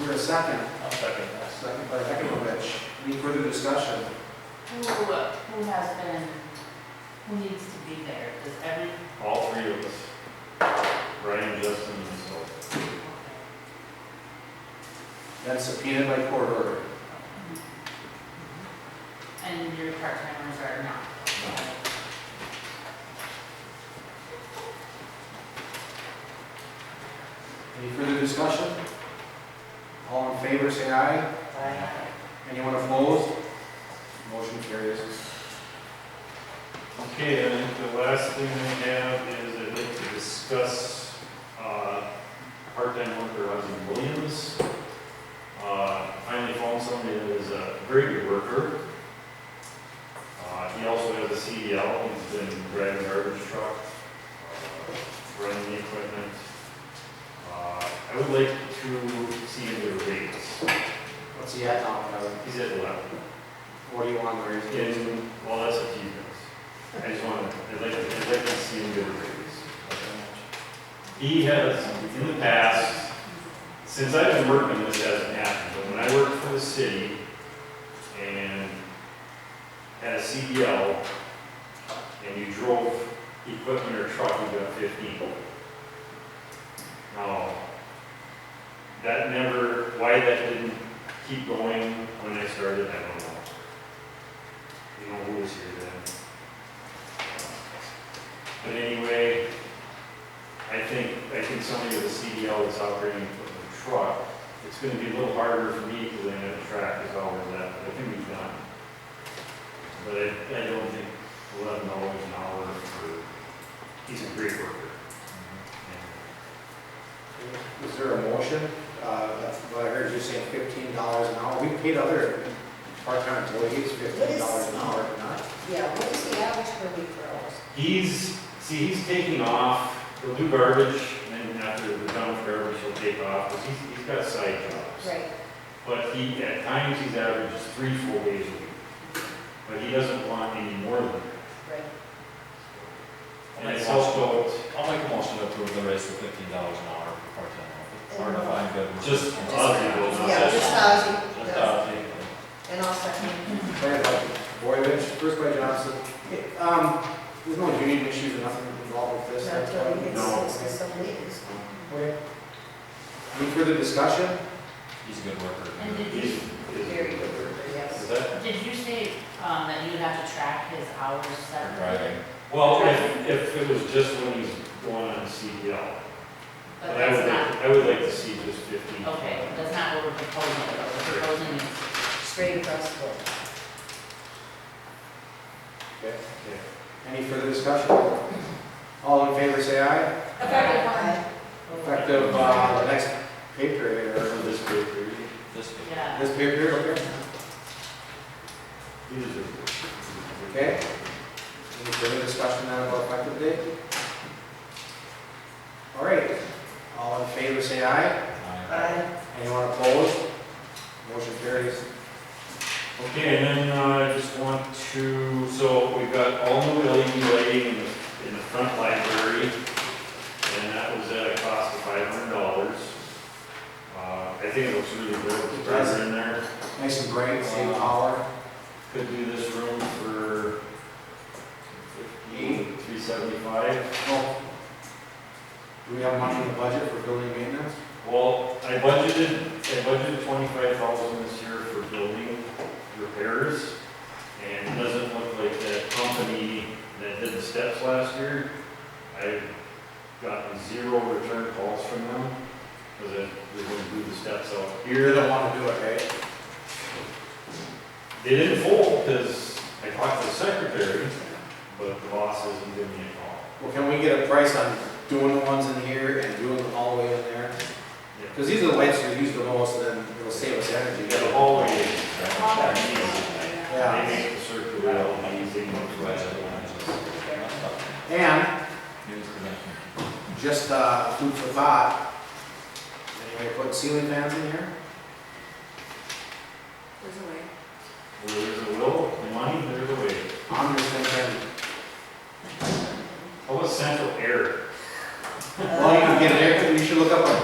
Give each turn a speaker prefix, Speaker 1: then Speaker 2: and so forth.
Speaker 1: there a second?
Speaker 2: I'll second that.
Speaker 1: Second by Heckelovich. Any further discussion?
Speaker 3: Who, uh, who has been, who needs to be there? Does every,
Speaker 2: All three of us. Brian, Justin, and myself.
Speaker 1: Then subpoenaed by court order.
Speaker 4: Mm-hmm.
Speaker 3: and your part-timers are not?
Speaker 1: Any further discussion? All in favor, say aye. Anyone opposed? Motion carries.
Speaker 2: Okay, I think the last thing we have is I'd like to discuss, uh, part-time worker Ozzy Williams. Uh, finally found somebody that is a very good worker. Uh, he also has a CDL, he's been driving garbage truck, uh, running the equipment. Uh, I would like to see him get a raise.
Speaker 1: What's he at now, Kevin?
Speaker 2: He's at eleven.
Speaker 1: What do you want to raise?
Speaker 2: And, well, that's a few things. I just want to, I'd like, I'd like to see him get a raise. He has, in the past, since I've been working, this hasn't happened, but when I worked for the city and had a CDL, and you drove equipment or truck, you got fifteen. Now, that never, why that didn't keep going when I started, I don't know. You know, who was here then? But anyway, I think, I think somebody with a CDL that's operating a truck, it's gonna be a little harder for me because I know the track is always that, but I think we've done. it. But I, I don't think eleven dollars an hour for, he's a great worker.
Speaker 1: Is there a motion? Uh, that's what I heard you saying fifteen dollars an hour. We paid other part-time employees fifteen dollars an hour, not?
Speaker 4: Yeah, what is the average per week for hours?
Speaker 2: He's, see, he's taking off, he'll do garbage, and then after we're done with garbage, he'll take off, because he's, he's got side jobs.
Speaker 4: Right.
Speaker 2: But he, at times, he's averages three, full days a week. But he doesn't want any more than that.
Speaker 4: Right.
Speaker 2: And it's also
Speaker 5: I'll make a motion to approve the raise to fifteen dollars an hour for part-time office. Or if I'm good. with-
Speaker 2: just Ozzy goes on.
Speaker 4: uh, Yeah, just Ozzy,
Speaker 5: Just
Speaker 4: yeah.
Speaker 5: Ozzy.
Speaker 4: and I'll second.
Speaker 1: Second by Boyovich, first by Johnson. Um, there's no union issues or nothing involved with this.
Speaker 4: Not till we get
Speaker 2: No.
Speaker 4: six to seven weeks.
Speaker 1: Okay. Any further discussion?
Speaker 5: He's a good
Speaker 3: And
Speaker 5: worker.
Speaker 3: did
Speaker 2: He's,
Speaker 3: you,
Speaker 2: he's a
Speaker 4: Very
Speaker 2: good
Speaker 4: good,
Speaker 2: worker.
Speaker 4: yes.
Speaker 2: Is that-
Speaker 3: did you say, um, that you'd have to track his hours separately?
Speaker 5: Right.
Speaker 2: Well, if, if it was just when he's going on CDL.
Speaker 3: But
Speaker 2: I would
Speaker 3: that's
Speaker 2: like,
Speaker 3: not,
Speaker 2: I would like to see just fifteen.
Speaker 3: okay, that's not what we're proposing, though. we're proposing is
Speaker 4: Straight across the board.
Speaker 1: Okay.
Speaker 2: Okay.
Speaker 1: Any further discussion? All in favor, say aye.
Speaker 4: Effective when?
Speaker 1: Effective, uh, the next pay period,
Speaker 2: For
Speaker 1: or
Speaker 2: this great period.
Speaker 5: This good.
Speaker 3: Yeah,
Speaker 1: this pay period, okay?
Speaker 2: He deserves it.
Speaker 1: Okay. Any further discussion then about effective date? All right, all in favor, say aye.
Speaker 3: Uh,
Speaker 5: Aye.
Speaker 4: Aye.
Speaker 1: Anyone opposed? Motion carries.
Speaker 2: Okay, and then uh, I just want to, so we've got all new LED lighting in the, in the front library, and that was at a cost of five hundred dollars. Uh, I think it looks really good, it's brighter in there.
Speaker 1: Nice and bright, same power.
Speaker 2: Could do this room for fifteen, three seventy-five.
Speaker 1: Oh. Do we have money in the budget for building maintenance?
Speaker 2: Well, I budgeted, I budgeted twenty-five thousand this year for building repairs, and it doesn't look like that company that did the steps last year, I've gotten zero return calls from them, because they're gonna do the steps out
Speaker 1: You're
Speaker 2: here.
Speaker 1: the one to do it, right?
Speaker 2: They didn't fold, because I talked to the secretary, but the boss isn't giving me a call.
Speaker 1: Well, can we get a price on doing the ones in here and doing the hallway in there?
Speaker 2: Yeah.
Speaker 1: Because these are the lights we use the most, and then it'll save us energy.
Speaker 2: You got a hallway, that means
Speaker 1: Yeah,
Speaker 2: they make the circular LEDs, they look
Speaker 5: Right, I
Speaker 2: right.
Speaker 5: just- that's up.
Speaker 1: and
Speaker 5: News connection.
Speaker 1: just, uh, food for thought. Anybody put ceiling fans in here?
Speaker 4: There's a way.
Speaker 2: Where there's a will, the money, there's a way.
Speaker 1: I'm just thinking,
Speaker 2: How about central air?
Speaker 1: well, you can get an air, you should look up a